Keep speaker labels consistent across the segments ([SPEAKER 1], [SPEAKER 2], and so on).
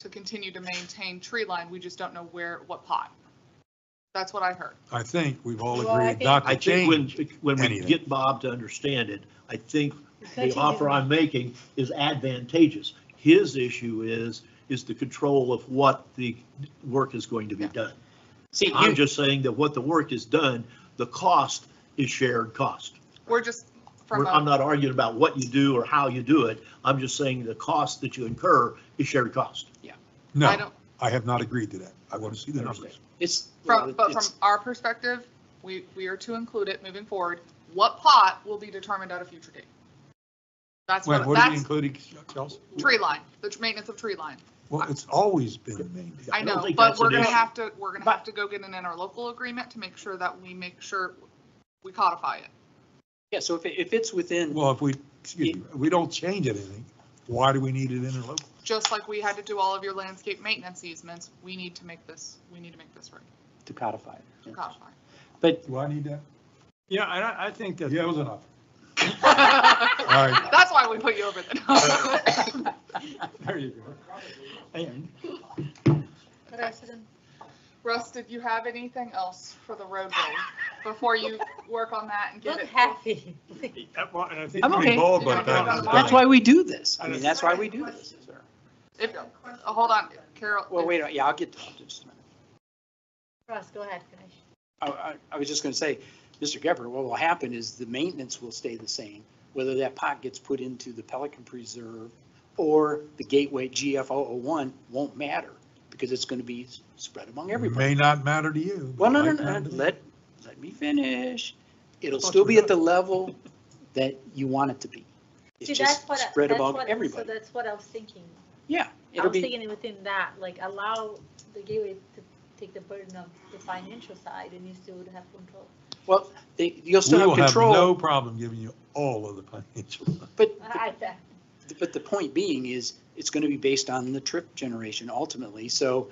[SPEAKER 1] to continue to maintain tree line, we just don't know where, what pot. That's what I heard.
[SPEAKER 2] I think we've all
[SPEAKER 3] Well, I
[SPEAKER 2] agreed
[SPEAKER 3] think-
[SPEAKER 2] not
[SPEAKER 4] I
[SPEAKER 2] to
[SPEAKER 4] think when,
[SPEAKER 2] change.
[SPEAKER 4] when we
[SPEAKER 2] anything.
[SPEAKER 4] get Bob to understand it, I think the
[SPEAKER 3] Continue.
[SPEAKER 4] offer I'm making is advantageous. His issue is, is the control of what the work is going to be done.
[SPEAKER 5] See,
[SPEAKER 4] I'm
[SPEAKER 5] you,
[SPEAKER 4] just saying that what the work is done, the cost is shared cost.
[SPEAKER 1] We're just from
[SPEAKER 4] We're- I'm
[SPEAKER 1] a,
[SPEAKER 4] not arguing about what you do or how you do it. I'm just saying the cost that you incur is shared cost.
[SPEAKER 1] I
[SPEAKER 2] No,
[SPEAKER 1] don't,
[SPEAKER 2] I have not agreed to that. I want to see the numbers.
[SPEAKER 5] it's,
[SPEAKER 1] from, but from
[SPEAKER 5] it's-
[SPEAKER 1] our perspective, we, we are to include it moving forward. What pot will be determined at a future date? That's
[SPEAKER 2] When,
[SPEAKER 1] what,
[SPEAKER 2] what are we
[SPEAKER 1] that's
[SPEAKER 2] including, Kelsey?
[SPEAKER 1] tree line, the maintenance of tree line.
[SPEAKER 2] Well, it's always been maintained.
[SPEAKER 1] I
[SPEAKER 4] don't
[SPEAKER 1] know,
[SPEAKER 4] think
[SPEAKER 1] but
[SPEAKER 4] that's
[SPEAKER 1] we're
[SPEAKER 4] an
[SPEAKER 1] gonna
[SPEAKER 4] issue.
[SPEAKER 1] have to, we're gonna
[SPEAKER 5] But-
[SPEAKER 1] have to go get an interlocal agreement to make sure that we make sure we codify it.
[SPEAKER 5] yeah, so if, it- if it's within,
[SPEAKER 2] Well, if we, excuse me, we don't change anything, why do we need it interlocal?
[SPEAKER 1] Just like we had to do all of your landscape maintenance easements, we need to make this, we need to make this right,
[SPEAKER 5] to codify it.
[SPEAKER 1] to
[SPEAKER 5] yeah.
[SPEAKER 1] codify.
[SPEAKER 5] But
[SPEAKER 2] Do I need that?
[SPEAKER 6] Yeah, I, I think that.
[SPEAKER 2] Yeah, it was enough.
[SPEAKER 1] That's
[SPEAKER 2] All right.
[SPEAKER 1] why we put you over there.
[SPEAKER 6] There you go. And
[SPEAKER 3] What else is in-
[SPEAKER 1] Russ, did you have anything else for the roadway before you work on that and get
[SPEAKER 3] Look
[SPEAKER 1] it?
[SPEAKER 3] happy.
[SPEAKER 6] uh, well, and I think.
[SPEAKER 5] I'm okay.
[SPEAKER 2] Involved by
[SPEAKER 1] Yeah.
[SPEAKER 2] the time it's
[SPEAKER 5] that's
[SPEAKER 2] done.
[SPEAKER 5] why we do this. I mean, that's why we do this. is there-
[SPEAKER 1] If, uh, hold on, Carol.
[SPEAKER 5] Well, wait, yeah, I'll get to that in just a minute.
[SPEAKER 3] Russ, go ahead, finish.
[SPEAKER 5] I, I, I was just gonna say, Mr. Gepper, what will happen is the maintenance will stay the same, whether that pot gets put into the Pelican Preserve or the Gateway GF one won't matter because it's gonna be s- spread among
[SPEAKER 2] May
[SPEAKER 5] everybody.
[SPEAKER 2] not matter to you. but
[SPEAKER 5] Well, no, no,
[SPEAKER 2] it might
[SPEAKER 5] no,
[SPEAKER 2] matter to me.
[SPEAKER 5] let, let me finish. It'll
[SPEAKER 2] I thought
[SPEAKER 5] still
[SPEAKER 2] you
[SPEAKER 5] be
[SPEAKER 2] were
[SPEAKER 5] at the level that you want it to be. It's
[SPEAKER 3] See,
[SPEAKER 5] just
[SPEAKER 3] that's what, I-
[SPEAKER 5] spread
[SPEAKER 3] that's
[SPEAKER 5] among
[SPEAKER 3] what, so
[SPEAKER 5] everybody.
[SPEAKER 3] that's what I was thinking.
[SPEAKER 5] Yeah,
[SPEAKER 3] I
[SPEAKER 5] it'll
[SPEAKER 3] was
[SPEAKER 5] be,
[SPEAKER 3] thinking within that, like allow the gateway to take the burden of the financial side and you still would have control.
[SPEAKER 5] well, they, you'll
[SPEAKER 2] We
[SPEAKER 5] still
[SPEAKER 2] will
[SPEAKER 5] have
[SPEAKER 2] have no
[SPEAKER 5] control,
[SPEAKER 2] problem giving you all of the financial.
[SPEAKER 5] but
[SPEAKER 3] I, I,
[SPEAKER 5] But the point being is, it's going to be based on the trip generation ultimately. So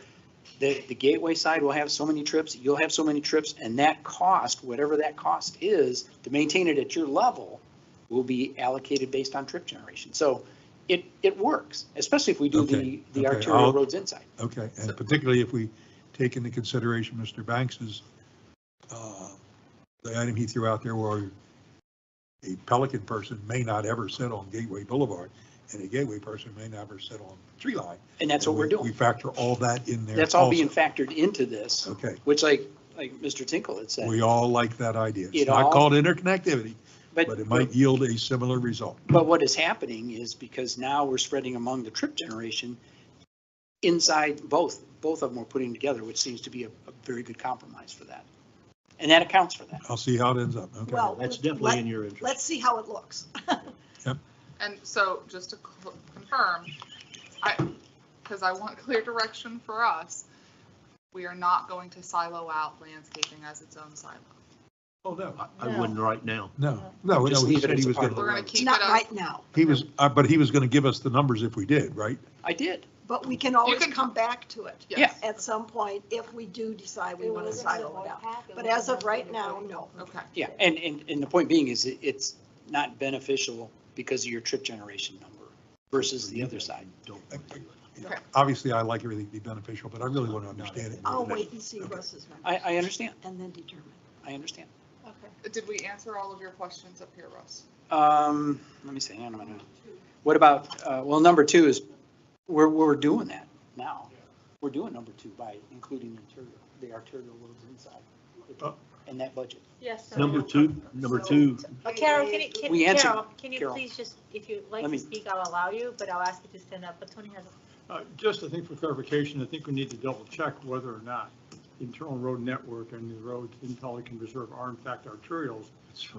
[SPEAKER 5] the, the gateway side will have so many trips, you'll have so many trips, and that cost, whatever that cost is, to maintain it at your level, will be allocated based on trip generation. So it, it works, especially if we do the,
[SPEAKER 2] Okay, okay,
[SPEAKER 5] the arterial
[SPEAKER 2] I'll-
[SPEAKER 5] roads inside.
[SPEAKER 2] Okay, and particularly if we take into consideration Mr. Banks's, uh, the item he threw out there where a Pelican person may not ever sit on Gateway Boulevard and a Gateway person may never sit on Tree Line.
[SPEAKER 5] And that's what
[SPEAKER 2] And
[SPEAKER 5] we're
[SPEAKER 2] we- We
[SPEAKER 5] doing.
[SPEAKER 2] factor all that in there.
[SPEAKER 5] That's all being
[SPEAKER 2] also.
[SPEAKER 5] factored into this,
[SPEAKER 2] Okay,
[SPEAKER 5] which like, like Mr. Tinkle had said,
[SPEAKER 2] we all like that idea. It's
[SPEAKER 5] It
[SPEAKER 2] not
[SPEAKER 5] all-
[SPEAKER 2] called interconnectivity,
[SPEAKER 5] but.
[SPEAKER 2] but it might yield a similar result.
[SPEAKER 5] But what is happening is because now we're spreading among the trip generation, inside both, both of them are putting together, which seems to be a, a very good compromise for that. And that accounts for that.
[SPEAKER 2] I'll see how it ends up, okay?
[SPEAKER 7] Well,
[SPEAKER 4] That's
[SPEAKER 7] let-
[SPEAKER 4] definitely in your interest.
[SPEAKER 7] Let's see how it looks.
[SPEAKER 1] And so just to cl- confirm, I, because I want clear direction for us, we are not going to silo out landscaping as its own silo.
[SPEAKER 2] Oh, no.
[SPEAKER 4] I- I wouldn't right now.
[SPEAKER 2] No, Oh, no, no,
[SPEAKER 5] Just
[SPEAKER 2] he
[SPEAKER 5] leave it
[SPEAKER 2] said
[SPEAKER 5] as
[SPEAKER 2] he
[SPEAKER 5] a
[SPEAKER 2] was
[SPEAKER 5] part of
[SPEAKER 2] going
[SPEAKER 5] the
[SPEAKER 1] We're gonna
[SPEAKER 2] to,
[SPEAKER 5] road.
[SPEAKER 1] keep it
[SPEAKER 7] Not
[SPEAKER 1] up.
[SPEAKER 7] right now,
[SPEAKER 2] he was, uh, but he was going to give us the numbers if we did, right?
[SPEAKER 5] I did.
[SPEAKER 7] but we can always
[SPEAKER 1] can-
[SPEAKER 7] come back to it
[SPEAKER 1] Yes.
[SPEAKER 7] at some point if we do decide we want to silo it out. But as of right now, no.
[SPEAKER 1] Okay.
[SPEAKER 5] Yeah, and, and, and the point being is it- it's not beneficial because of your trip generation number versus the other side.
[SPEAKER 4] Don't.
[SPEAKER 1] Okay.
[SPEAKER 2] Obviously, I like everything to be beneficial, but I really want to understand it.
[SPEAKER 7] I'll Oh, wait and see Russ's number
[SPEAKER 5] I, I understand.
[SPEAKER 7] and then determine.
[SPEAKER 5] I understand.
[SPEAKER 3] okay.
[SPEAKER 1] Did we answer all of your questions up here, Russ?
[SPEAKER 5] Um, let me see, hang on a minute. What about, uh, well, number two is, we're, we're doing that now. We're doing number two by including the interior, the arterial roads inside, in that budget.
[SPEAKER 3] Yes. so-
[SPEAKER 4] Number two, number two,
[SPEAKER 3] But Carol, can you, can-
[SPEAKER 5] We answered,
[SPEAKER 3] Carol, can you
[SPEAKER 5] Carol.
[SPEAKER 3] please just, if you'd like
[SPEAKER 5] Let me-
[SPEAKER 3] to speak, I'll allow you, but I'll ask you to stand up, but Tony has. a-
[SPEAKER 6] uh, Just, I think for clarification, I think we need to double check whether or not the internal road network and the roads in Pelican Reserve are in fact arterials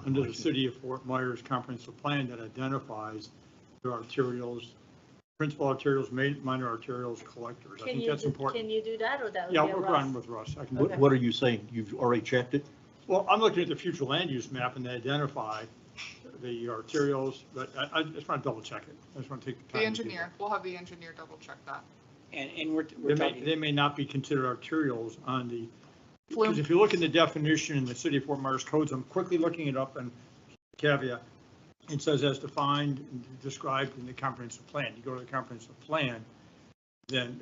[SPEAKER 6] under the city of Fort Myers comprehensive plan that identifies their arterials, principal arterials, ma- minor arterials, collectors. I
[SPEAKER 3] Can
[SPEAKER 6] think
[SPEAKER 3] you,
[SPEAKER 6] that's
[SPEAKER 3] do- can
[SPEAKER 6] important.
[SPEAKER 3] you do that or that? would
[SPEAKER 6] Yeah,
[SPEAKER 3] be a
[SPEAKER 6] we're running
[SPEAKER 3] Russ?
[SPEAKER 6] with Russ. I can do
[SPEAKER 4] what,
[SPEAKER 6] that.
[SPEAKER 4] what are you saying? You've already checked it?
[SPEAKER 6] Well, I'm looking at the future land use map and they identify the arterials, but I, I just want to double check it. I just want to take the
[SPEAKER 1] The
[SPEAKER 6] time. to do that.
[SPEAKER 1] engineer, we'll have the engineer double check that.
[SPEAKER 5] And, and we're,
[SPEAKER 6] They
[SPEAKER 5] we're
[SPEAKER 6] may, they
[SPEAKER 5] talking,
[SPEAKER 6] may not be considered arterials on the,
[SPEAKER 1] Flume.
[SPEAKER 6] because if you look in the definition in the city of Fort Myers codes, I'm quickly looking it up and caveat. It says as defined, and described in the comprehensive plan. You go to the comprehensive plan, then